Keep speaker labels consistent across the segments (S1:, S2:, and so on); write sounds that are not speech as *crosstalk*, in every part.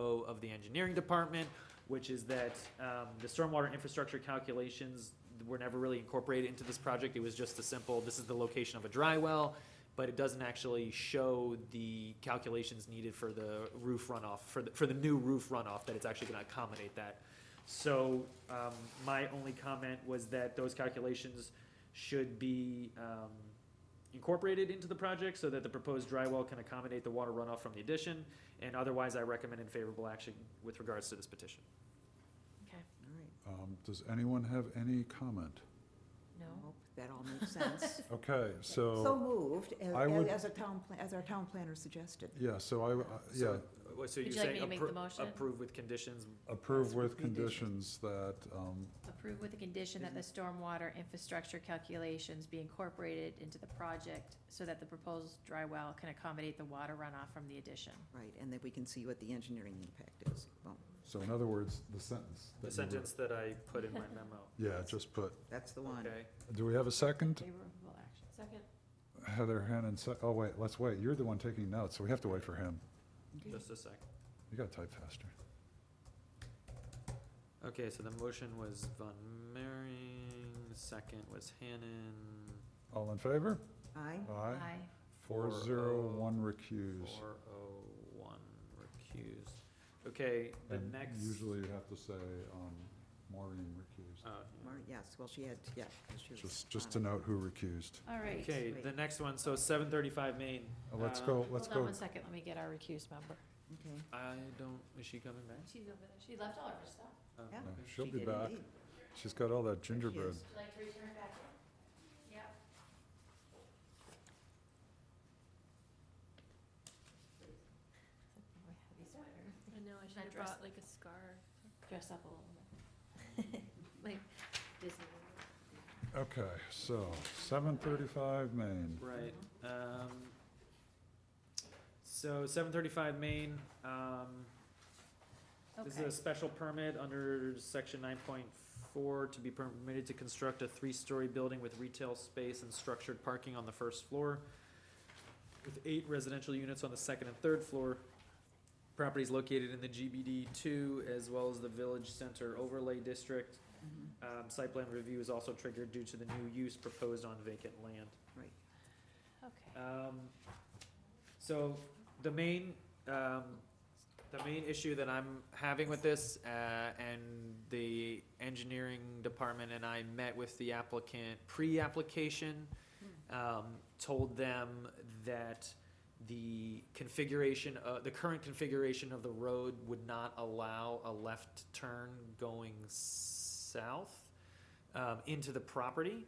S1: E of the engineering department, which is that um, the stormwater infrastructure calculations were never really incorporated into this project. It was just a simple, this is the location of a dry well, but it doesn't actually show the calculations needed for the roof runoff, for the, for the new roof runoff, that it's actually gonna accommodate that. So, um, my only comment was that those calculations should be, um, incorporated into the project so that the proposed dry well can accommodate the water runoff from the addition, and otherwise I recommend in favorable action with regards to this petition.
S2: Okay,
S3: Um, Does anyone have any comment?
S2: no,
S4: Nope, That all
S5: *laughs*
S4: makes sense.
S3: Okay,
S4: So
S3: so,
S4: moved, as,
S3: I would-
S4: as a town, pla- as our town planner suggested.
S3: yeah, so I, I- yeah,
S1: Wha- So you're
S2: you like me
S1: saying
S2: to make the
S1: appro-
S2: motion?
S1: approve with conditions,
S3: approve with
S4: Conditions.
S3: conditions that, um,
S2: approve with the condition that the stormwater infrastructure calculations be incorporated into the project so that the proposed dry well can accommodate the water runoff from the addition.
S4: Right, and then we can see what the engineering impact is. Boom,
S3: so in other words, the sentence.
S1: the
S3: that you were-
S1: sentence that I put
S2: *laughs*
S1: in my memo,
S3: Yeah, just put,
S4: that's the one.
S1: okay?
S3: do we have a second?
S2: Favorable action. Second.
S3: Heather Hannon, se- oh, wait, let's wait. You're the one taking notes, so we have to wait for him.
S1: Just a sec.
S3: You gotta type faster.
S1: Okay, so the motion was Von Mering, the second was Hannon,
S3: All in favor?
S4: Aye,
S3: Aye.
S2: Aye.
S3: Four zero, one recused.
S1: four oh one recused. Okay, the
S3: And
S1: next.
S3: Usually you have to say, um, Maureen recused,
S1: Oh, yeah.
S4: Mar- yes, well, she had, yeah. 'cause she was
S3: just, just to
S4: on it.
S3: note who recused.
S2: All right.
S1: Okay, the next one, so seven thirty-five Main.
S3: Uh, Let's
S1: Uh,
S3: go, let's
S2: Hold on
S3: go,
S2: one second, let me get our recused member.
S4: Okay.
S1: I don't, is she coming back?
S2: She's over there, she left all of her stuff.
S1: Oh,
S4: Yeah.
S1: okay.
S3: No, she'll
S4: She
S3: be
S4: did
S3: back.
S4: indeed.
S3: She's got all that
S4: There she is.
S3: gingerbread.
S2: Would you like to return back in? Yep.
S5: I know, I should
S2: Not
S5: have
S2: dress-
S5: brought like a scarf.
S2: Dress up a little bit. *laughs* Like Disney.
S3: Okay, so seven thirty-five Main.
S1: Right, um, so seven thirty-five Main, um, this is a
S2: Okay,
S1: special permit under section nine point four to be permitted to construct a three-story building with retail space and structured parking on the first floor with eight residential units on the second and third floor. Property is located in the GBD two as well as the Village Center Overlay District.
S4: Mhm,
S1: Um, site plan review is also triggered due to the new use proposed on vacant land.
S4: Right.
S2: okay.
S1: Um, so the main, um, the main issue that I'm having with this, uh, and the engineering department and I met with the applicant pre-application. Um, told them that the configuration, uh, the current configuration of the road would not allow a left turn going south, um, into the property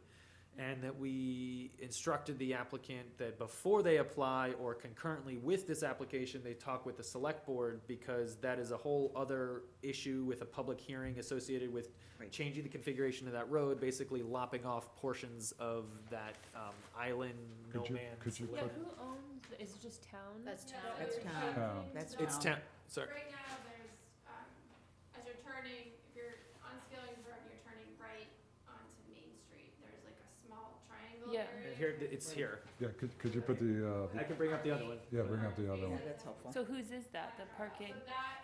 S1: and that we instructed the applicant that before they apply or concurrently with this application, they talk with the select board because that is a whole other issue with a public hearing associated with
S4: Right.
S1: changing the configuration of that road, basically lopping off portions of that, um, island, no
S3: Could you- could
S1: man's
S3: you
S1: land.
S3: put-
S5: Yeah, who owns, the- is it just town?
S2: That's town.
S4: That's town.
S3: Town.
S4: That's
S1: It's
S4: town.
S1: town, sorry,
S6: Right now, there's, um, as you're turning, if you're on Skilling's Road, you're turning right onto Main Street, there's like a small triangle
S5: Yeah.
S6: area.
S1: here, it's here,
S3: Yeah, could, could you put the, uh,
S1: I can bring up the other one.
S3: yeah, bring out the other
S4: Yeah,
S3: one.
S4: that's helpful.
S5: So whose is that, the parking?
S6: So that,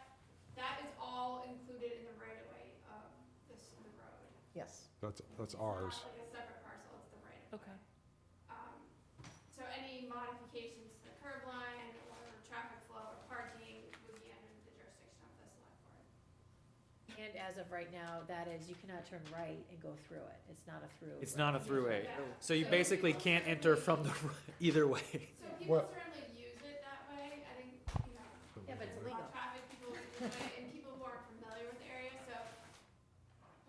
S6: that is all included in the right of way of this, the road.
S4: Yes.
S3: That's, that's
S6: It's not
S3: ours.
S6: like a separate parcel, it's the right of way.
S5: Okay,
S6: Um, so any modifications to the curb line or traffic flow or parking would be under the jurisdiction of the select board.
S2: And as of right now, that is, you cannot turn right and go through it, it's not a through.
S1: It's not a throughway,
S6: Yeah.
S1: so you basically can't enter from the, *laughs* either way.
S6: So people
S3: Well-
S6: certainly use it that way, I think, you know,
S2: Yeah, but it's illegal.
S6: lot of traffic, people in the way, and people who aren't familiar with the area, so.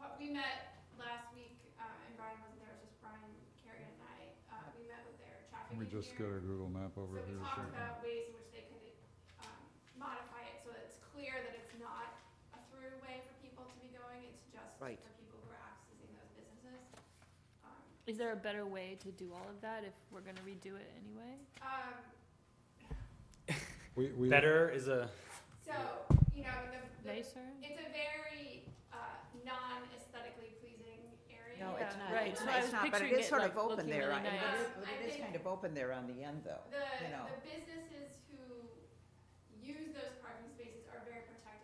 S6: But we met last week, uh, and Brian wasn't there, it was just Brian, Carrie and I, uh, we met with their traffic
S3: Let me just get
S6: engineer.
S3: our Google map
S6: So
S3: over
S6: we
S3: here.
S6: talked
S3: so-
S6: about ways in which they could, um, modify it so that it's clear that it's not a through way for people to be going, it's just for
S4: Right.
S6: people who are accessing those businesses. Um,
S5: is there a better way to do all of that if we're gonna redo it anyway?
S6: Um,
S3: We, we,
S1: Better is a.
S6: so, you know, the, the
S5: Nicer?
S6: It's a very uh, non aesthetically pleasing area. Um,
S4: No, it's
S5: Yeah,
S4: not,
S5: right,
S4: it's
S5: so
S4: not,
S5: I
S4: it's
S5: was
S4: not, but it
S5: picturing
S4: is
S5: it,
S4: sort
S5: like,
S4: of open
S5: looking
S4: there,
S5: really
S4: I- but it
S6: nice.
S4: is- but
S6: I
S4: it is
S6: think-
S4: kind of open there on the end, though,
S6: The,
S4: you know.
S6: the business